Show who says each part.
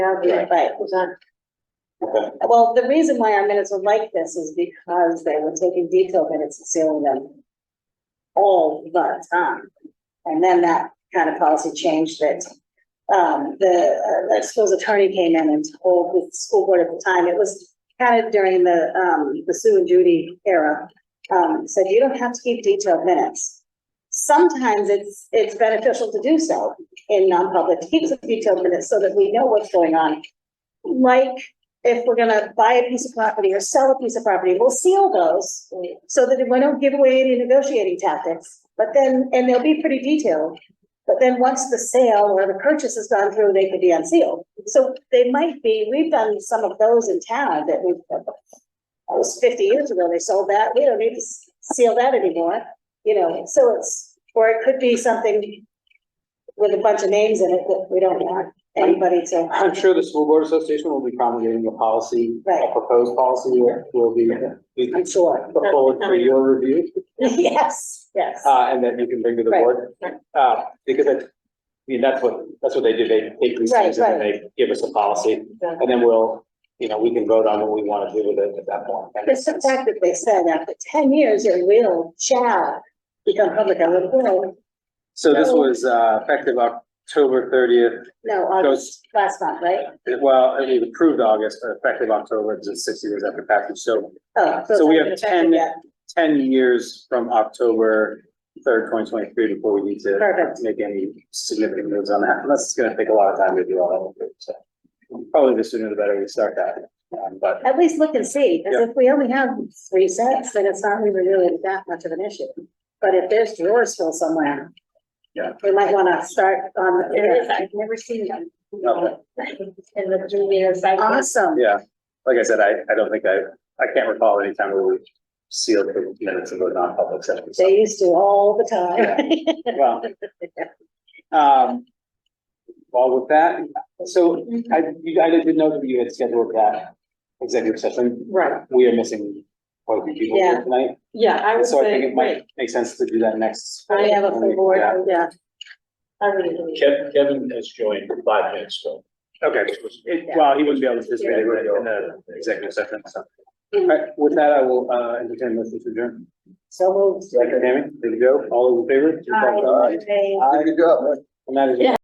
Speaker 1: Yeah.
Speaker 2: Right.
Speaker 1: Was on,
Speaker 3: Okay.
Speaker 2: Well, the reason why our minutes were like this is because they were taking detailed minutes and sealing them all the time. And then that kind of policy changed that, um, the, uh, the school's attorney came in and told the school board at the time, it was kind of during the, um, the Sue and Judy era, um, said you don't have to keep detailed minutes. Sometimes it's, it's beneficial to do so in non-public, keep the detailed minutes so that we know what's going on. Like if we're gonna buy a piece of property or sell a piece of property, we'll seal those. So that we don't give away any negotiating tactics, but then, and they'll be pretty detailed. But then once the sale or the purchase has gone through, they could be unsealed. So they might be, we've done some of those in town that we. That was fifty years ago, they sold that, we don't need to seal that anymore, you know, so it's, or it could be something. With a bunch of names in it that we don't want anybody to.
Speaker 3: I'm sure the school board association will be promulgating a policy,
Speaker 2: Right.
Speaker 3: a proposed policy that will be
Speaker 2: I'm sure.
Speaker 3: put forward for your review,
Speaker 2: Yes, yes.
Speaker 3: uh, and that you can bring to the
Speaker 2: Right.
Speaker 3: board. Uh, because I, I mean, that's what, that's what they do. They take these
Speaker 2: Right,
Speaker 3: things and then they give us a policy. And then we'll, you know, we can vote on what we want to do with it at that point. That makes
Speaker 2: It's the
Speaker 3: sense.
Speaker 2: fact that they said after ten years, it will, shall become public, I would, will,
Speaker 3: So this was, uh, effective October thirtieth,
Speaker 2: no, August,
Speaker 3: goes,
Speaker 2: last month, right?
Speaker 3: well, it was approved August, but effective October, it's just sixty days after passage. So
Speaker 2: Oh,
Speaker 3: So we
Speaker 2: it's
Speaker 3: have
Speaker 2: not effective
Speaker 3: 10
Speaker 2: yet.
Speaker 3: ten years from October third, twenty twenty-three, before we need to
Speaker 2: Perfect.
Speaker 3: make any significant moves on that, unless it's gonna take a lot of time to do all that. so. Probably the sooner the better we start that, um, but
Speaker 2: At least look and see, because if we only have three sets, then it's not even really that much of an issue. But if there's drawers still somewhere.
Speaker 3: Yeah.
Speaker 2: We might wanna start on,
Speaker 1: there is, I've never seen them.
Speaker 3: Okay.
Speaker 1: In the junior cycle.
Speaker 2: awesome,
Speaker 3: yeah, like I said, I, I don't think I, I can't recall any time where we sealed the minutes of a non-public session. so.
Speaker 2: they used to all the time.
Speaker 3: Well. Um. Well, with that, so I, you, I did know that you had scheduled that executive session.
Speaker 4: Right,
Speaker 3: We are missing quite a few people
Speaker 2: Yeah.
Speaker 3: here tonight.
Speaker 4: yeah, I would
Speaker 3: So I think
Speaker 4: say,
Speaker 3: it
Speaker 4: right,
Speaker 3: might make sense to do that next.
Speaker 2: We have a full board,
Speaker 3: Yeah.
Speaker 2: yeah.
Speaker 1: I really believe.
Speaker 5: Kevin, Kevin has joined five minutes ago.
Speaker 3: Okay, it, well, he wouldn't be able to participate in the executive session, so. All right, with that, I will, uh, entertain this to adjourn.
Speaker 2: So moved.
Speaker 3: Second, Tammy, there you go, all those in favor?
Speaker 2: Aye.
Speaker 3: Aye. And that is.
Speaker 1: Yeah.